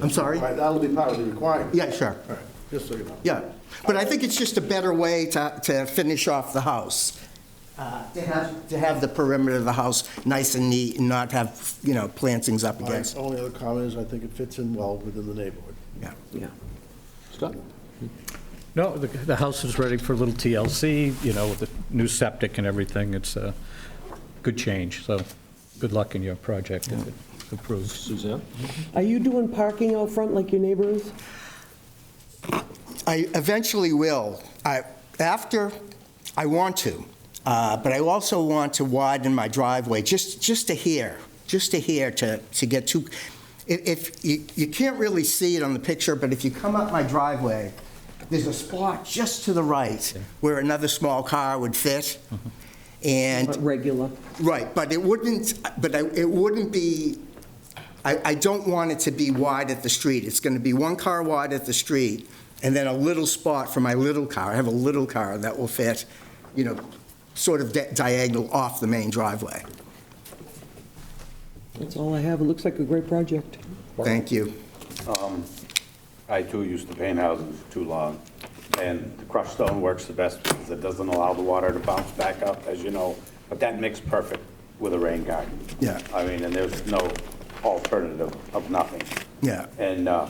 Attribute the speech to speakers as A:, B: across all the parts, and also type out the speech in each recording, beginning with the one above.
A: I'm sorry?
B: Right, that'll be part of the requirement.
A: Yeah, sure.
B: All right, just so you know.
A: Yeah, but I think it's just a better way to, to finish off the house. Uh, To have, to have the perimeter of the house nice and neat and not have, you know, plantings up
B: My
A: against.
B: only other comment is I think it fits in well within the neighborhood.
A: Yeah.
C: Scott?
D: No, the, the house is ready for a little TLC, you know, with the new septic and everything. It's a good change, so good luck in your project if it approves.
C: Suzanne?
E: Are you doing parking out front like your neighbor is?
A: I eventually will. I, after, I want to, Uh, but I also want to widen my driveway, just, just to here, just to here, to, to get to, if- if, you, you can't really see it on the picture, but if you come up my driveway, there's a spot just to the right where another small car would fit, and...
E: Not Regular?
A: Right, but it wouldn't, but I- it wouldn't be, I, I don't want it to be wide at the street. It's going to be one car wide at the street, and then a little spot for my little car. I have a little car that will fit, you know, sort of di- diagonal off the main driveway.
E: That's all I have. It looks like a great project.
A: Thank you.
F: Um, I too used to paint houses too long, and the crushed stone works the best because it doesn't allow the water to bounce back up, as you know, but that mixed perfect with a rain garden.
A: Yeah.
F: I mean, and there's no alternative of nothing.
A: Yeah.
F: And uh,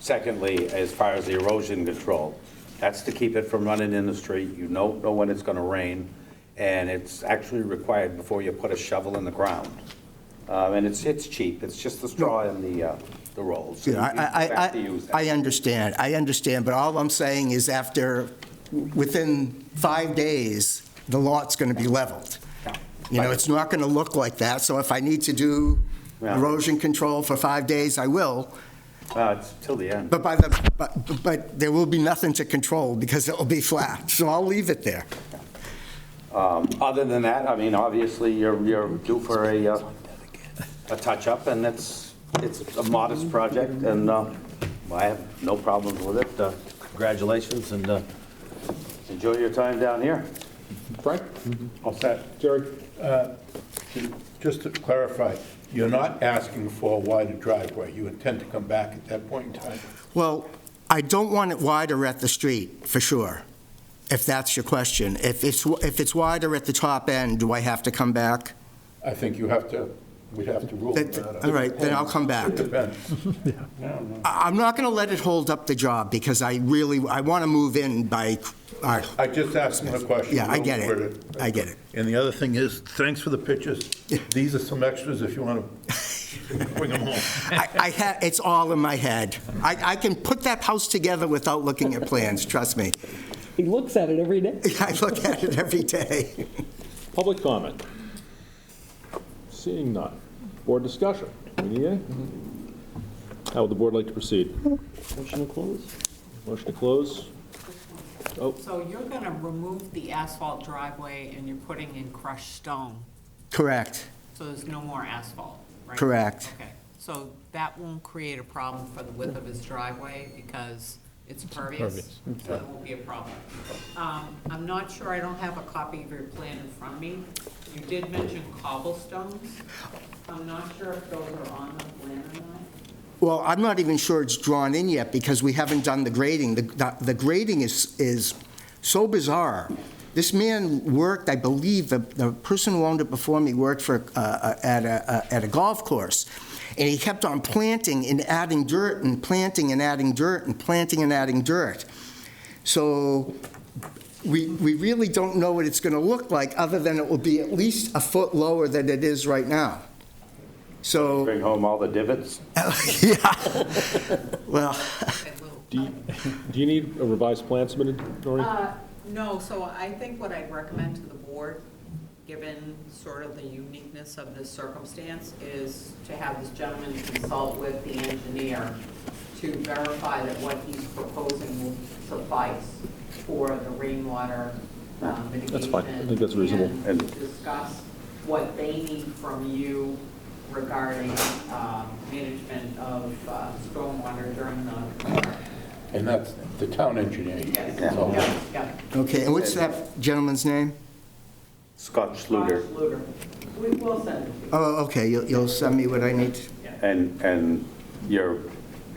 F: secondly, as far as the erosion control, that's to keep it from running in the street. You don't know when it's going to rain, and it's actually required before you put a shovel in the ground. Uh, And it's, it's cheap, it's just the straw and the, uh, the rolls.
A: Yeah, I,
F: You have to
A: I-
F: use that.
A: I, I understand, I understand, but all I'm saying is after, within five days, the lot's going to be leveled. You know, it's not going to look like that, so if I need to do
F: Yeah.
A: erosion control for five days, I will,
F: Uh, It's till the end.
A: but by the, but, but there will be nothing to control because it'll be flat, so I'll leave it there.
F: Um, Other than that, I mean, obviously, you're, you're due for a, uh, a touch-up, and it's, it's a modest project, and uh, I have no problems with it. Uh, Congratulations, and uh, enjoy your time down here.
C: Frank?
G: All set. Jerry? Just to clarify, you're not asking for a wider driveway. You intend to come back at that point in time?
A: Well, I don't want it wider at the street, for sure, if that's your question. If it's, if it's wider at the top end, do I have to come back?
G: I think you have to, we'd have to rule
A: That-
G: that out.
A: all right, then I'll come back.
G: It depends.
A: I- I'm not going to let it hold up the job because I really, I want to move in by, all right,
G: I just asked him a question.
A: Yeah, I get it.
G: Word
A: I get it.
G: And the other thing is, thanks for the pictures. These are some extras if you want to bring them home.
A: I, I ha it's all in my head. I, I can put that house together without looking at plans, trust me.
E: He looks at it every day.
A: I look at it every day.
C: Public comment? Seeing none. Board discussion? We need any? How would the board like to proceed?
E: Motion to close?
C: Motion to close?
H: So you're gonna remove the asphalt driveway and you're putting in crushed stone,
A: Correct.
H: so there's no more asphalt, right?
A: Correct.
H: Okay, so that won't create a problem for the width of his driveway because it's pervious, so it won't be a problem. Um, I'm not sure, I don't have a copy of your plan in front of me. You did mention cobblestones. I'm not sure if those are on the plan or not.
A: Well, I'm not even sure it's drawn in yet because we haven't done the grading. The- The the grading is, is so bizarre. This man worked, I believe, the, the person who owned it before me worked for, uh, uh, at a, uh, at a golf course. And he kept on planting and adding dirt and planting and adding dirt and planting and adding dirt. So we, we really don't know what it's going to look like, other than it will be at least a foot lower than it is right now. So.
F: Bring home all the divots.
A: Yeah. Well,
H: That little
C: Do you, do you need a revised plan submitted, Noreen?
H: Uh, No, so I think what I'd recommend to the board, given sort of the uniqueness of this circumstance, is to have this gentleman consult with the engineer to verify that what he's proposing will suffice for the rainwater um, mitigation.
C: That's fine. I think that's reasonable.
H: And discuss what they need from you regarding um, management of uh, stormwater during the.
G: And that's the town engineer. you
H: Yes,
G: consult with.
H: yeah, yeah.
A: okay, and what's that gentleman's name?
F: Scott Schluter,
H: Josh Luder. We will send it to you.
A: Oh, okay, you'll, you'll send me what I need.
F: and, and your